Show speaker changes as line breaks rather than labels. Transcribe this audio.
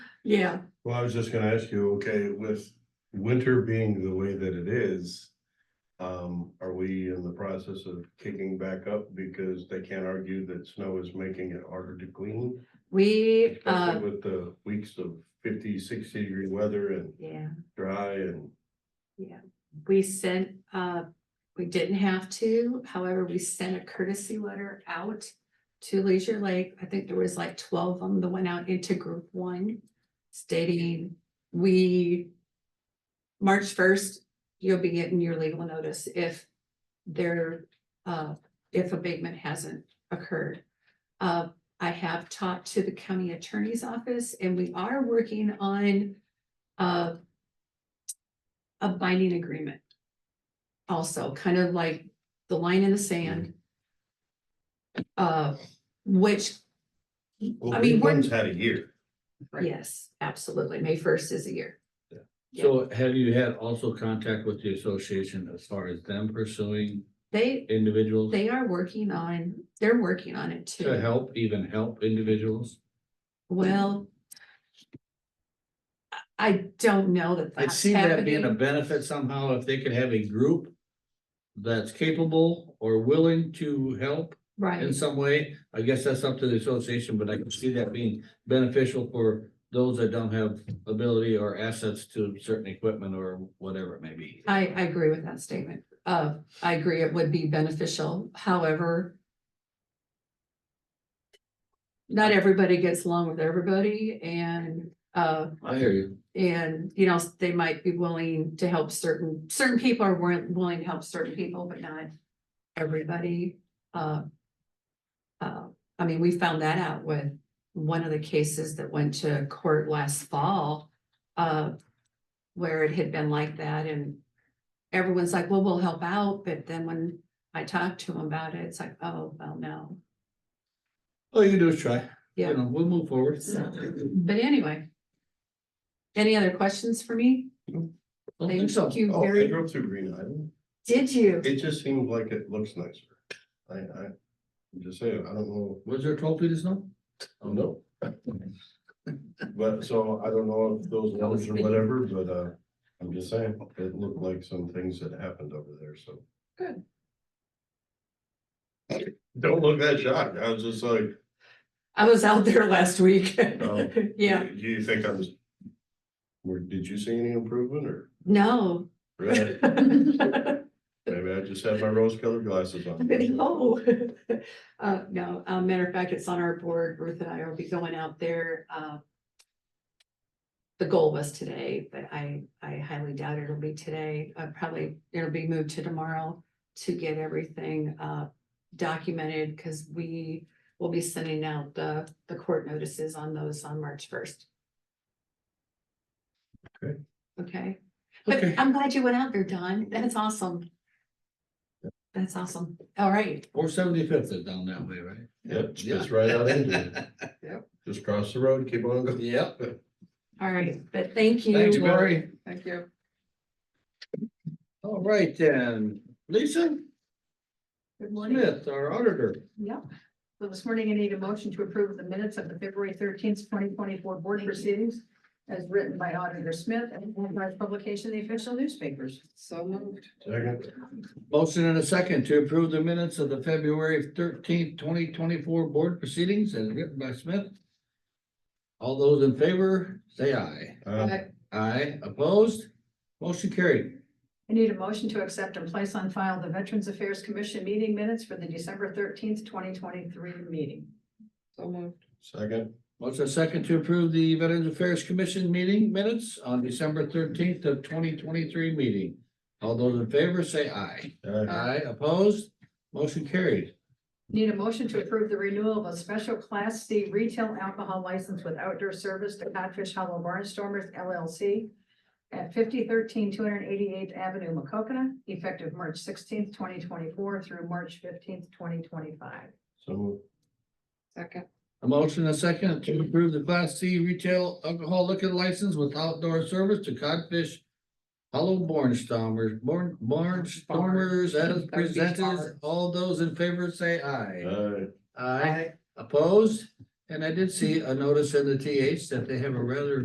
Yeah,
Well, I was just gonna ask you, okay, with winter being the way that it is. Um, are we in the process of kicking back up because they can't argue that snow is making it harder to clean?
we, uh,
Especially with the weeks of 50, 60 degree weather and
yeah,
dry and,
we sent, uh, we didn't have to, however, we sent a courtesy letter out to Leisure Lake. I think there was like twelve of them that went out into group one stating, we March first, you'll be getting your legal notice if there, uh, if abatement hasn't occurred. Uh, I have talked to the county attorney's office and we are working on, uh, a binding agreement. Also, kind of like the line in the sand. Uh, which,
well,
I mean, we're-
one's had a year.
Right.
yes, absolutely, May first is a year. Yeah.
So have you had also contact with the association as far as them pursuing
They,
individuals
they are working on, they're working on it too.
to help, even help individuals?
Well. I- I don't know that
I'd
that's
see that being a
happening.
benefit somehow if they could have a group that's capable or willing to help in
Right,
some way. I guess that's up to the association, but I can see that being beneficial for those that don't have ability or assets to certain equipment or whatever it may be.
I, I agree with that statement. Uh, I agree it would be beneficial, however. Not everybody gets along with everybody and, uh,
I hear you.
and, you know, they might be willing to help certain, certain people are wer- willing to help certain people, but not everybody. Uh, uh, I mean, we found that out with one of the cases that went to court last fall, uh, where it had been like that and everyone's like, well, we'll help out, but then when I talked to them about it, it's like, oh, well, no.
All you can do is try.
Yeah.
You know, we'll move forward.
So, but anyway. Any other questions for me?
Don't think so.
Thank you
Oh,
very
I drove through Green Island.
Did you?
It just seems like it looks nicer. I, I, I'm just saying, I don't know,
Was there twelve feet of snow? Oh, no.
but so I don't know if those ones or whatever, but, uh, I'm just saying, it looked like some things that happened over there, so.
Good.
Don't look that shocked. I was just like,
I was out there last week.
Oh.
Yeah,
do you think I was? Where, did you see any improvement or?
no.
Really?
No,
Maybe I just had my rose colored glasses on.
uh, no, uh, matter of fact, it's on our board. Ruth and I will be going out there, uh. The goal was today, but I, I highly doubt it'll be today. Uh, probably it'll be moved to tomorrow to get everything, uh, documented because we will be sending out the, the court notices on those on March first.
Okay.
Okay, but
Okay.
I'm glad you went out there, Don. That's awesome. That's awesome. All right.
Four seventy-fifth is down that way, right?
Yep, just right out into it. Just cross the road, keep on going.
Yep.
All right, but thank you.
Thanks, Barry.
Thank you.
All right then, Lisa
Good morning.
Smith, our auditor.
Yep. So this morning I need a motion to approve the minutes of the February thirteenth, twenty twenty-four board proceedings as written by Auditor Smith and authorized publication in the official newspapers. So moved.
Second,
Motion and a second to approve the minutes of the February thirteenth, twenty twenty-four board proceedings as written by Smith. All those in favor, say aye.
uh,
Aye, opposed, motion carried.
I need a motion to accept and place on file the Veterans Affairs Commission meeting minutes for the December thirteenth, twenty twenty-three meeting. So moved.
second,
Motion and a second to approve the Veterans Affairs Commission meeting minutes on December thirteenth of twenty twenty-three meeting. All those in favor, say aye.
uh,
Aye, opposed, motion carried.
Need a motion to approve the renewal of a special Class C retail alcohol license with outdoor service to Codfish Hollow Barnstormers LLC at 5013 288th Avenue, Macokina, effective March sixteenth, twenty twenty-four through March fifteenth, twenty twenty-five.
so.
Second.
A motion and a second to approve the Class C retail alcohol liquor license with outdoor service to Codfish Hollow Barnstormers, Born, Barnstormers as
That would be
presented.
farmers.
All those in favor say aye.
Uh,
Aye. Opposed? And I did see a notice in the TH that they have a rather